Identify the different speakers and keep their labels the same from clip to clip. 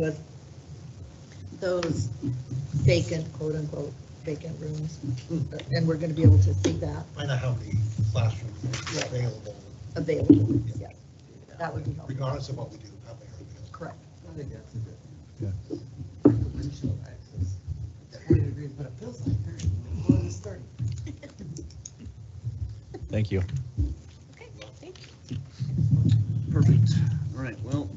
Speaker 1: with those vacant, quote-unquote, vacant rooms, and we're going to be able to see that
Speaker 2: Find out how many classrooms are available,
Speaker 1: available, yes. That would be helpful,
Speaker 2: regardless of what we do, how many are available.
Speaker 1: correct.
Speaker 3: I think that's a good.
Speaker 4: Yeah.
Speaker 3: Provincial access. Thirty degrees, but it feels like thirty. Well, it's thirty.
Speaker 4: Thank you.
Speaker 5: Okay, thank you.
Speaker 6: Perfect. All right, well,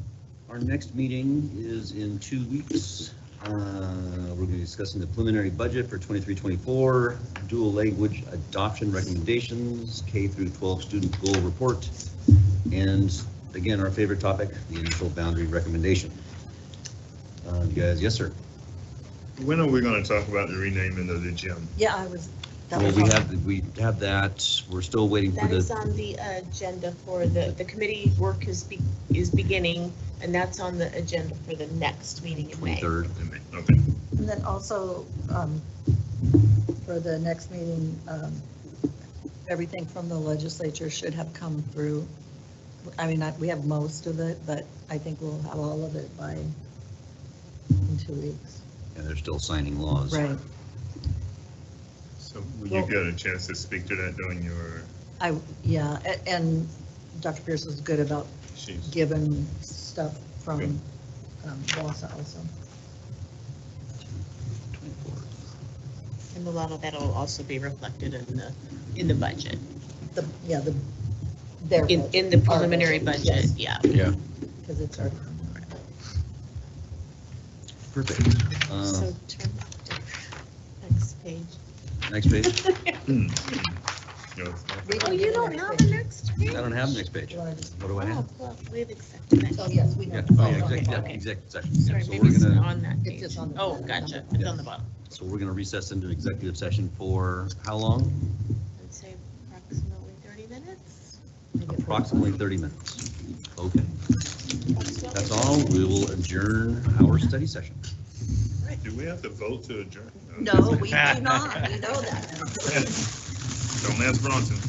Speaker 6: our next meeting is in two weeks. Uh, We're going to be discussing the preliminary budget for 23-24, dual language adoption recommendations, K through 12 student goal report, and again, our favorite topic, the initial boundary recommendation. Uh, You guys, yes, sir?
Speaker 7: When are we gonna talk about the renaming of the gym?
Speaker 1: Yeah, I was. that
Speaker 6: Well,
Speaker 1: was
Speaker 6: we
Speaker 1: all-
Speaker 6: have, we have that. We're still waiting for
Speaker 5: That is
Speaker 6: the,
Speaker 5: on the agenda for the, the committee work is, be- is beginning, and that's on the agenda for the next meeting in May.
Speaker 6: 23rd.
Speaker 7: Okay.
Speaker 1: And then also, um, for the next meeting, um, everything from the legislature should have come through. I mean, I- we have most of it, but I think we'll have all of it by in two weeks.
Speaker 6: and they're still signing laws.
Speaker 7: So will you get a chance to speak to that during your,
Speaker 1: I, yeah, a- and Dr. Pierce was good about
Speaker 7: she's,
Speaker 1: given stuff
Speaker 7: Good.
Speaker 1: from um, Wausau, also.
Speaker 6: 24th.
Speaker 5: And a lot of that will also be reflected in the, in the budget,
Speaker 1: The, yeah, the, their.
Speaker 5: in, in the preliminary budget, yeah.
Speaker 4: Yeah.
Speaker 1: Because it's our,
Speaker 6: Perfect. Uh,
Speaker 5: So turn to next page.
Speaker 6: Uh, Next page.
Speaker 7: you know,
Speaker 1: We-
Speaker 5: Oh, you don't have the next
Speaker 6: I
Speaker 5: page?
Speaker 6: don't have the next page.
Speaker 1: you want to just,
Speaker 6: What do I
Speaker 5: Oh,
Speaker 6: have?
Speaker 5: well, we've accepted
Speaker 1: oh,
Speaker 5: that.
Speaker 1: yes, we
Speaker 6: Yeah,
Speaker 1: know.
Speaker 6: oh,
Speaker 1: Oh,
Speaker 6: yeah,
Speaker 1: okay.
Speaker 6: exec, yeah,
Speaker 5: okay.
Speaker 6: executive session. Yeah,
Speaker 5: Sorry,
Speaker 6: so
Speaker 5: maybe
Speaker 6: we're
Speaker 5: it's not
Speaker 6: gonna,
Speaker 5: on that
Speaker 1: It's
Speaker 5: page.
Speaker 1: just on the-
Speaker 5: Oh, gotcha, it's on the bottom.
Speaker 6: so we're gonna recess into executive session for how long?
Speaker 5: I'd say approximately 30 minutes.
Speaker 6: Approximately thirty minutes. Okay, that's all. We will adjourn our study session.
Speaker 7: do we have to vote to adjourn?
Speaker 1: No, we do not, we know that.
Speaker 7: Don't ask Bronson.